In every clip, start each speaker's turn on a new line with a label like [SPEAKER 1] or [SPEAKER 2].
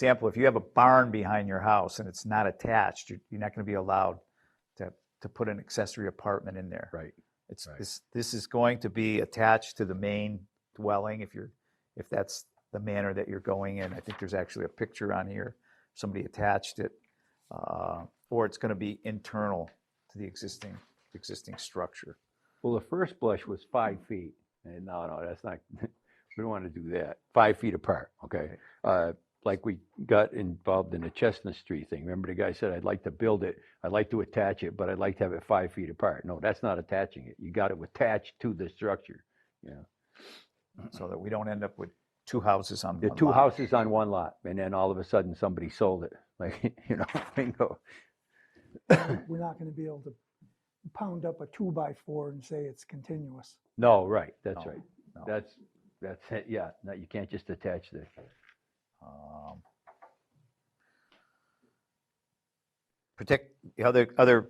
[SPEAKER 1] example, if you have a barn behind your house and it's not attached, you're, you're not going to be allowed to, to put an accessory apartment in there.
[SPEAKER 2] Right.
[SPEAKER 1] It's,
[SPEAKER 2] Right.
[SPEAKER 1] this, this is going to be attached to the main dwelling if you're, if that's the manner that you're going in. I think there's actually a picture on here, somebody attached it. uh, Or it's going to be internal to the existing, existing structure.
[SPEAKER 2] Well, the first blush was five feet, and no, no, that's not, we don't want to do that. Five feet apart, okay? Uh, Like we got involved in the Chestnut Street thing. Remember the guy said, I'd like to build it, I'd like to attach it, but I'd like to have it five feet apart. No, that's not attaching it. You got to attach to the structure.
[SPEAKER 1] So that we don't end up with two houses on one
[SPEAKER 2] The
[SPEAKER 1] lot.
[SPEAKER 2] two houses on one lot, and then all of a sudden, somebody sold it, like, you know, bingo.
[SPEAKER 3] we're not gonna be able to pound up a two by four and say it's continuous.
[SPEAKER 2] No, right, that's
[SPEAKER 1] No,
[SPEAKER 2] right.
[SPEAKER 1] no.
[SPEAKER 2] That's, that's it, yeah. No, you can't just attach the,
[SPEAKER 1] Um, Protect, the other, other,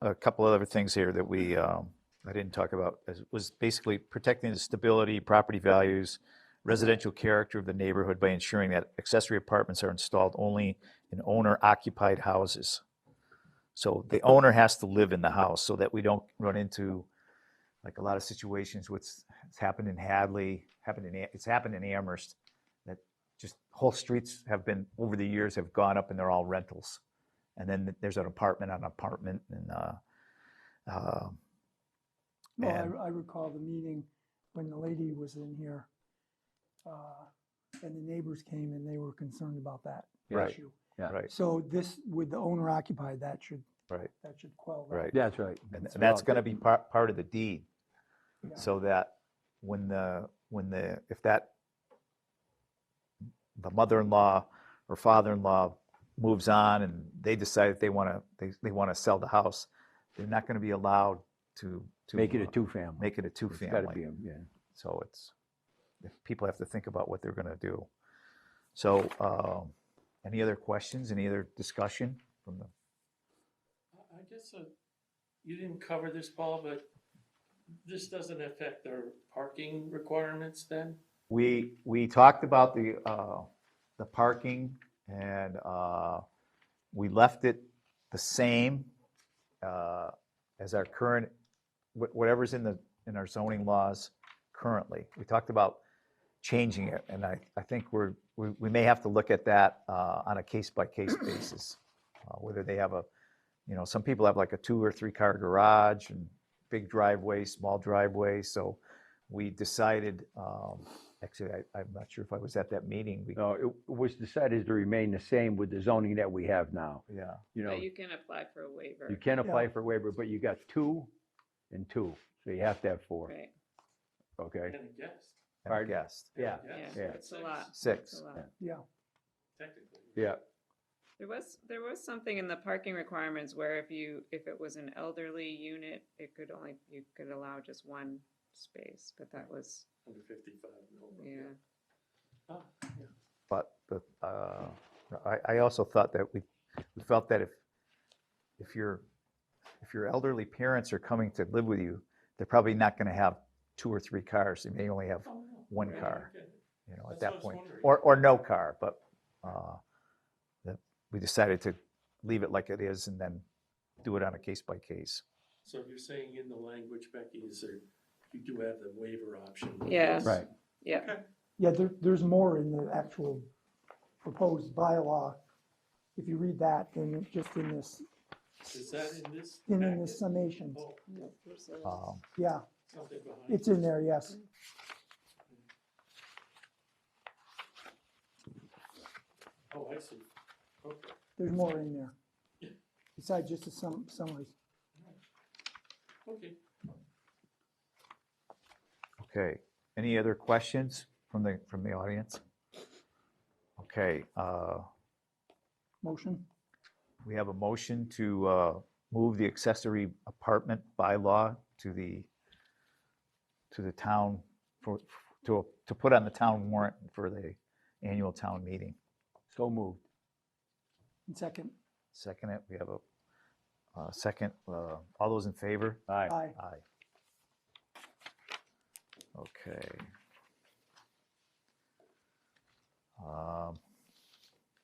[SPEAKER 1] a couple other things here that we, um, I didn't talk about, is- was basically protecting the stability, property values, residential character of the neighborhood by ensuring that accessory apartments are installed only in owner-occupied houses. So the owner has to live in the house so that we don't run into, like, a lot of situations, what's it's happened in Hadley, happened in, A- it's happened in Amherst, that just whole streets have been, over the years, have gone up and they're all rentals. And then there's an apartment on apartment and, uh, uh,
[SPEAKER 3] No,
[SPEAKER 1] And-
[SPEAKER 3] I, I recall the meeting when the lady was in here. uh, And the neighbors came and they were concerned about that
[SPEAKER 2] Right.
[SPEAKER 3] issue.
[SPEAKER 2] yeah.
[SPEAKER 1] Right.
[SPEAKER 3] So this, with the owner occupied, that should,
[SPEAKER 1] Right.
[SPEAKER 3] that should quell that.
[SPEAKER 1] right.
[SPEAKER 2] That's right.
[SPEAKER 1] And th-
[SPEAKER 2] Well,
[SPEAKER 1] that's going to be
[SPEAKER 2] that-
[SPEAKER 1] part, part of the deed.
[SPEAKER 3] Yeah.
[SPEAKER 1] So that when the, when the, if that, the mother-in-law or father-in-law moves on and they decide that they want to, they, they want to sell the house, they're not going to be allowed to. to,
[SPEAKER 2] Make it
[SPEAKER 1] uh,
[SPEAKER 2] a two-family.
[SPEAKER 1] Make it a
[SPEAKER 2] It's gotta be
[SPEAKER 1] two-family.
[SPEAKER 2] a- Yeah.
[SPEAKER 1] So it's, if people have to think about what they're going to do. So um, any other questions, any other discussion from the,
[SPEAKER 4] I- I guess uh, you didn't cover this, Paul, but this doesn't affect our parking requirements then?
[SPEAKER 1] We, we talked about the, uh, the parking and, uh, we left it the same, uh, as our current, wh- whatever's in the, in our zoning laws currently. We talked about changing it and I, I think we're, we, we may have to look at that, uh, on a case by case basis. uh, Whether they have a, you know, some people have like a two or three car garage and big driveway, small driveway, so we decided, um, actually, I, I'm not sure if I was at that meeting. we-
[SPEAKER 2] No, it it was decided to remain the same with the zoning that we have now.
[SPEAKER 1] Yeah,
[SPEAKER 2] You know,
[SPEAKER 5] But you can apply for a waiver.
[SPEAKER 2] you can apply
[SPEAKER 3] Yeah.
[SPEAKER 2] for waiver, but you got two and two, so you have to have four,
[SPEAKER 5] Right,
[SPEAKER 2] okay?
[SPEAKER 4] And a guest.
[SPEAKER 1] and a
[SPEAKER 2] Pardon?
[SPEAKER 1] guest,
[SPEAKER 4] and a
[SPEAKER 2] Yeah,
[SPEAKER 4] guest,
[SPEAKER 5] yeah,
[SPEAKER 4] that's
[SPEAKER 5] it's a
[SPEAKER 4] six,
[SPEAKER 5] lot.
[SPEAKER 1] six.
[SPEAKER 5] so, uh,
[SPEAKER 3] Yeah,
[SPEAKER 4] Technically.
[SPEAKER 2] yeah,
[SPEAKER 5] There was, there was something in the parking requirements where if you, if it was an elderly unit, it could only, you could allow just one space, but that was,
[SPEAKER 4] Under fifty-five. and over,
[SPEAKER 5] yeah.
[SPEAKER 4] Ah, yeah.
[SPEAKER 1] But the, uh, I, I also thought that we, we felt that if, if your, if your elderly parents are coming to live with you, they're probably not gonna have two or three cars. They may only have,
[SPEAKER 4] Oh, no.
[SPEAKER 1] One
[SPEAKER 4] Right,
[SPEAKER 1] car.
[SPEAKER 4] okay.
[SPEAKER 1] you know, at
[SPEAKER 4] That's what I
[SPEAKER 1] that
[SPEAKER 4] was
[SPEAKER 1] point,
[SPEAKER 4] wondering.
[SPEAKER 1] or, or no car, but, uh, that we decided to leave it like it is and then do it on a case by case.
[SPEAKER 4] So you're saying in the language, Becky, is there, you do have the waiver option? with
[SPEAKER 5] Yeah.
[SPEAKER 4] this.
[SPEAKER 2] right.
[SPEAKER 5] Yeah,
[SPEAKER 4] Okay.
[SPEAKER 3] yeah, there, there's more in the actual proposed bylaw. If you read that, then just in this,
[SPEAKER 4] Is that in this?
[SPEAKER 3] in
[SPEAKER 4] packet?
[SPEAKER 3] the summations,
[SPEAKER 4] Oh,
[SPEAKER 5] there's a-
[SPEAKER 1] Um,
[SPEAKER 3] yeah,
[SPEAKER 4] something behind
[SPEAKER 3] it's in there, yes.
[SPEAKER 4] it. Oh, I see. Okay.
[SPEAKER 3] There's more in there. Besides just the sum, summaries.
[SPEAKER 4] Okay.
[SPEAKER 1] Okay, any other questions from the, from the audience? Okay, uh,
[SPEAKER 3] Motion?
[SPEAKER 1] We have a motion to uh, move the accessory apartment bylaw to the, to the town, for, to, to put on the town warrant for the annual town meeting.
[SPEAKER 2] So moved.
[SPEAKER 3] And second?
[SPEAKER 1] Second it, we have a, uh second, uh, all those in favor?
[SPEAKER 2] Aye.
[SPEAKER 3] Aye.
[SPEAKER 1] Aye. Okay. Um,